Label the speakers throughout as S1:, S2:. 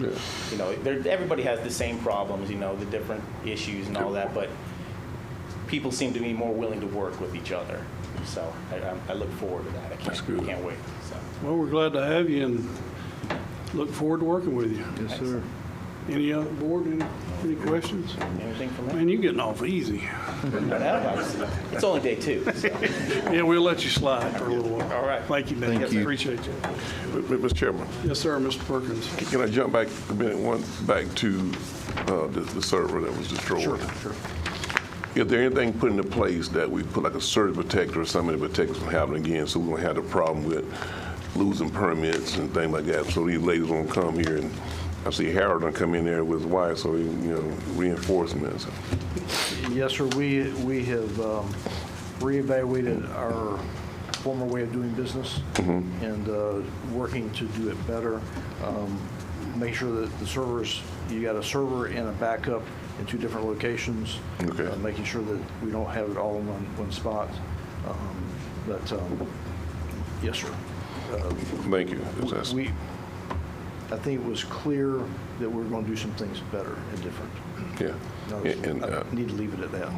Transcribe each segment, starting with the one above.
S1: You know, there, everybody has the same problems, you know, the different issues and all that, but people seem to be more willing to work with each other. So I, I'm- I look forward to that. I
S2: That's
S1: can't,
S2: good.
S1: can't wait, so.
S3: Well, we're glad to have you and look forward to working with you.
S2: Yes, sir.
S3: Any other board, any, any questions?
S1: Anything from that?
S3: Man, you're getting off easy.
S1: It's only day two, so.
S3: Yeah, we'll let you slide for a little while.
S1: All right.
S3: Thank you, Dave.
S2: Thank you.
S3: Appreciate you.
S2: Mr. Chairman,
S3: Yes, sir, Mr. Perkins.
S2: can I jump back a minute, one, back to uh, the the server that was destroyed? Sure. Is there anything put into place that we put like a surge protector or something to protect us from happening again, so we don't have the problem with losing permits and things like that? So these ladies won't come here, and I see Harold done come in there with his wife, so, he, you know, reinforcements.
S4: Yes, sir, we, we have um, reevaluated our former way of doing business
S2: Mm-hmm.
S4: and uh, working to do it better. Um, Make sure that the servers, you got a server and a backup in two different locations.
S2: Okay.
S4: uh, Making sure that we don't have it all in one, one spot. Um, But, um, yes, sir.
S2: Thank you. That's-
S4: We, I think it was clear that we're going to do some things better and different.
S2: Yeah.
S4: No,
S2: And- and, uh,
S4: I need to leave it at that.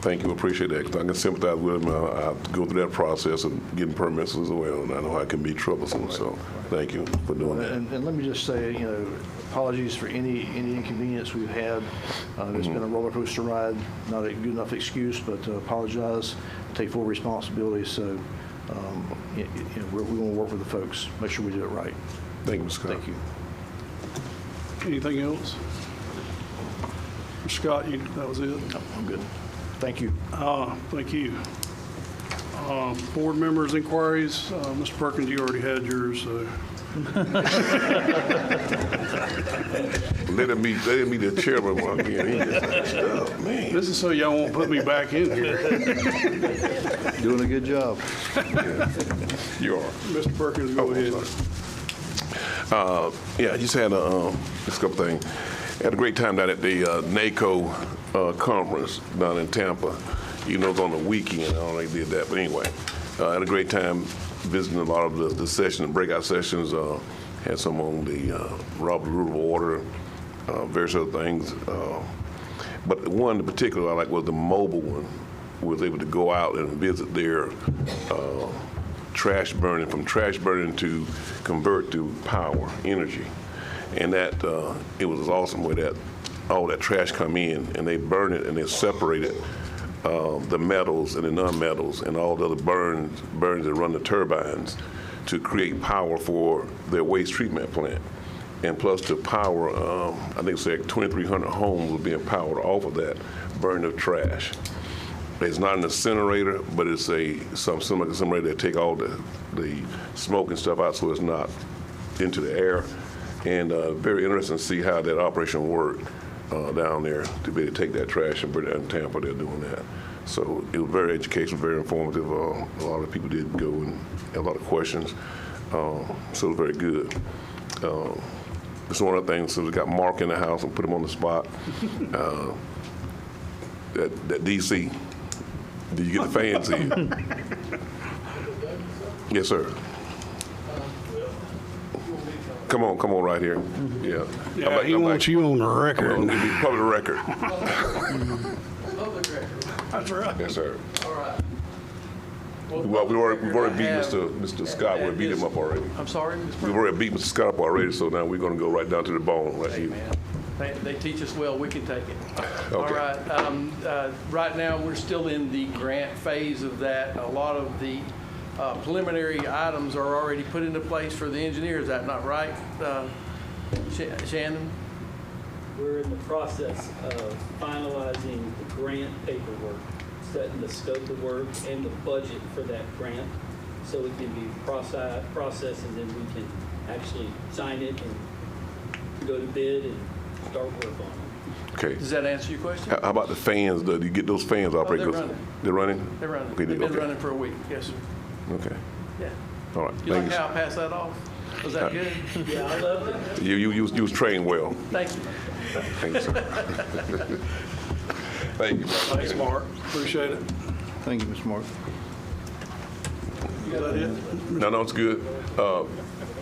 S2: Thank you, appreciate that, 'cause I can sympathize with him. I I go through that process of getting permits as well, and I know it can be troublesome, so thank you for doing that.
S4: And, and let me just say, you know, apologies for any, any inconvenience we've had. Uh, It's
S5: Mm-hmm.
S4: been a roller coaster ride, not a good enough excuse, but uh, apologize, take full responsibility, so, um, y- y- you know, we're, we want to work with the folks, make sure we do it right.
S2: Thank you, Ms. Scott.
S4: Thank you.
S3: Anything else? Scott, you, that was it?
S4: No, I'm good. Thank you.
S3: Uh, Thank you. Uh, Board members' inquiries, Uh, Mr. Perkins, you already had yours, so
S2: Let him be, let him be the chairman one again. He just- oh, Man,
S3: this is so y'all won't put me back in here.
S5: Doing a good job.
S2: you are.
S3: Mr. Perkins,
S2: Oh,
S3: go
S2: I'm
S3: ahead.
S2: sorry. Uh, Yeah, I just had a, um, just a couple things. Had a great time down at the uh, NACO uh, conference down in Tampa. You know, it's on the weekend, I don't know if they did that, but anyway. uh, Had a great time visiting a lot of the- the sessions, breakout sessions. uh, Had some on the uh, Robert Rule of Order, uh, various other things. uh, But one in particular I like was the mobile one. Was able to go out and visit their uh, trash burning, from trash burning to convert to power, energy. And that, uh, it was awesome where that, all that trash come in and they burn it and they separate it, uh, the metals and the non-metals and all the other burns, burns that run the turbines to create power for their waste treatment plant. And plus to power, um, I think it's like 2,300 homes will be empowered off of that burn of trash. It's not an incinerator, but it's a, some, some like incinerator that take all the, the smoke and stuff out so it's not into the air. And uh, very interesting to see how that operation worked uh, down there to be able to take that trash and bring it down to Tampa. They're doing that. So it was very educational, very informative. Uh, a lot of people did go and had a lot of questions. Uh, so it was very good. Uh, it's one of the things, so we got Mark in the house and put him on the spot. Uh, that, that DC, do you get the fans in? Yes, sir. Come on, come on right here. Yeah. I'm
S3: Yeah,
S2: back-
S3: he
S2: I'm
S3: wants
S2: back.
S3: you on the record.
S2: It'll be Public record.
S6: Public record.
S3: That's right.
S2: Yes, sir.
S6: All right.
S2: Well, we already, we already beat Mr.
S6: public record I have-
S2: Mr. Scott, we beat him up already.
S6: I'm sorry, Ms.
S2: We already beat Mr. Scott up already, so now we're gonna go right down to the bone right here.
S6: They, they teach us well, we can take it. All
S2: Okay.
S6: right, um, uh, right now, we're still in the grant phase of that. A lot of the uh, preliminary items are already put into place for the engineer, is that not right? uh, Sha- Shannon?
S7: We're in the process of finalizing the grant paperwork, setting the scope of work and the budget for that grant, so it can be process- processed, and then we can actually sign it and go to bid and start work on it.
S2: Okay.
S6: Does that answer your question?
S2: How how about the fans, though? Do you get those fans operating?
S6: Oh, they're running.
S2: They're running?
S6: They're running,
S2: Okay,
S6: they've been
S2: okay.
S6: running for a week, yes, sir.
S2: Okay,
S6: Yeah.
S2: all right.
S6: You like
S2: Thank
S6: how I passed that off? Was that good?
S7: Yeah, I love it.
S2: You, you, you was- you was trained well.
S6: Thank you.
S2: Thank you, sir. Thank you.
S3: Thanks, Mark. Appreciate it.
S5: Thank you, Ms. Mark.
S3: Is that it?
S2: No, no, it's good. Uh,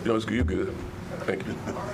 S2: No, it's good, you're good. Thank you.